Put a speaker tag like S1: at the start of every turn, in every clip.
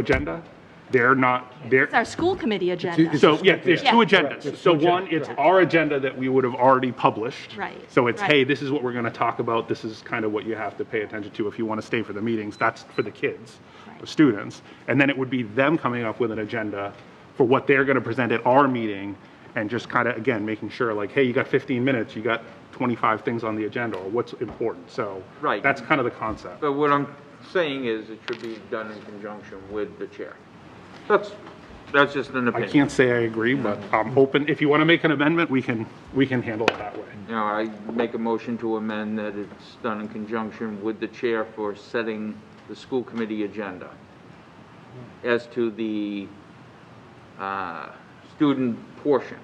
S1: agenda. They're not, they're,
S2: It's our school committee agenda.
S1: so, yeah, there's two
S2: Yeah.
S1: agendas. So one, it's our agenda that we would have already published.
S2: Right,
S1: So it's,
S2: right.
S1: hey, this is what we're going to talk about, this is kind of what you have to pay attention to if you want to stay for the meetings, that's for the kids, the students. And then it would be them coming up with an agenda for what they're going to present at our meeting and just kind of, again, making sure like, hey, you got 15 minutes, you got 25 things on the agenda, or what's important, so.
S3: Right.
S1: That's kind of the concept.
S3: But what I'm saying is it should be done in conjunction with the chair. That's, that's just an
S1: I
S3: opinion.
S1: can't say I agree, but I'm open, if you want to make an amendment, we can, we can handle it that way.
S3: You know, I make a motion to amend that it's done in conjunction with the chair for setting the school committee agenda. As to the, uh, student portion.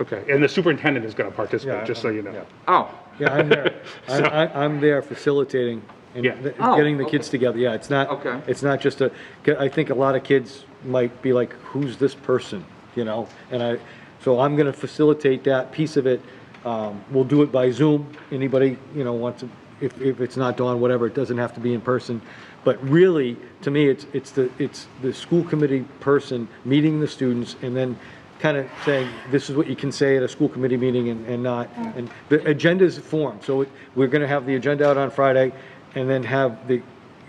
S1: Okay, and the superintendent is going to participate, just so you know.
S3: Oh,
S4: Yeah, I'm there. I, I, I'm there facilitating and
S1: Yeah.
S4: th-
S3: Oh,
S4: getting the
S3: okay.
S4: kids together. Yeah, it's not,
S3: Okay.
S4: it's not just a, 'cause I think a lot of kids might be like, who's this person? You know, and I, so I'm gonna facilitate that piece of it. Um, we'll do it by Zoom. Anybody, you know, wants to, if, if it's not Dawn, whatever, it doesn't have to be in person. But really, to me, it's, it's the, it's the school committee person meeting the students and then kind of saying, this is what you can say at a school committee meeting and, and not. And the agenda's formed, so it- we're gonna have the agenda out on Friday and then have the,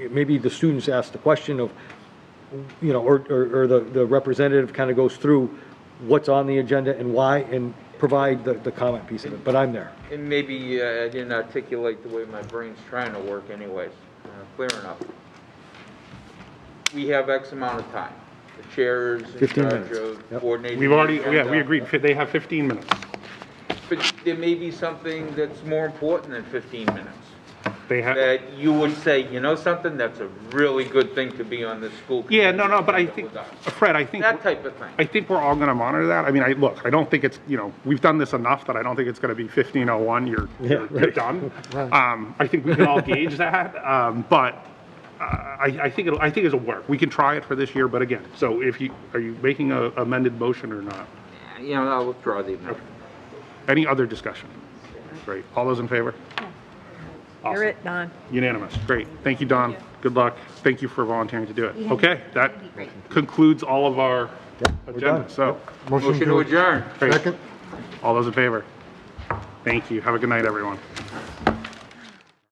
S4: maybe the students ask the question of, you know, or, or, or the, the representative kind of goes through what's on the agenda and why and provide the, the comment piece of it, but I'm there.
S3: and maybe uh, I didn't articulate the way my brain's trying to work anyways, uh, clear enough. We have X amount of time. The chair is in
S4: 15
S3: charge
S4: minutes.
S3: of
S4: Yep.
S3: coordinating.
S1: We've already,
S3: the
S1: yeah, we
S3: agenda.
S1: agreed, fi- they have 15 minutes.
S3: But there may be something that's more important than 15 minutes.
S1: They have,
S3: That you would say, you know something, that's a really good thing to be on this school.
S1: yeah,
S3: committee
S1: no, no, but I
S3: agenda
S1: think,
S3: with us."
S1: Fred, I think,
S3: That type of thing.
S1: I think we're all going to monitor that. I mean, I, look, I don't think it's, you know, we've done this enough that I don't think it's going to be 1501, you're, you're you're done. Um, I think we can all gauge that, um, but uh, I, I think it'll, I think it'll work. We can try it for this year, but again, so if you, are you making a amended motion or not?
S3: You know, I'll withdraw the amendment.
S1: Any other discussion? Great. All those in favor?
S5: You're it, Don.
S1: Unanimous. Great. Thank you, Don. Good luck. Thank you for volunteering to do it. Okay, that concludes all of our agenda.
S4: done.
S1: So,
S3: Motion to adjourn.
S1: great. All those in favor? Thank you. Have a good night, everyone.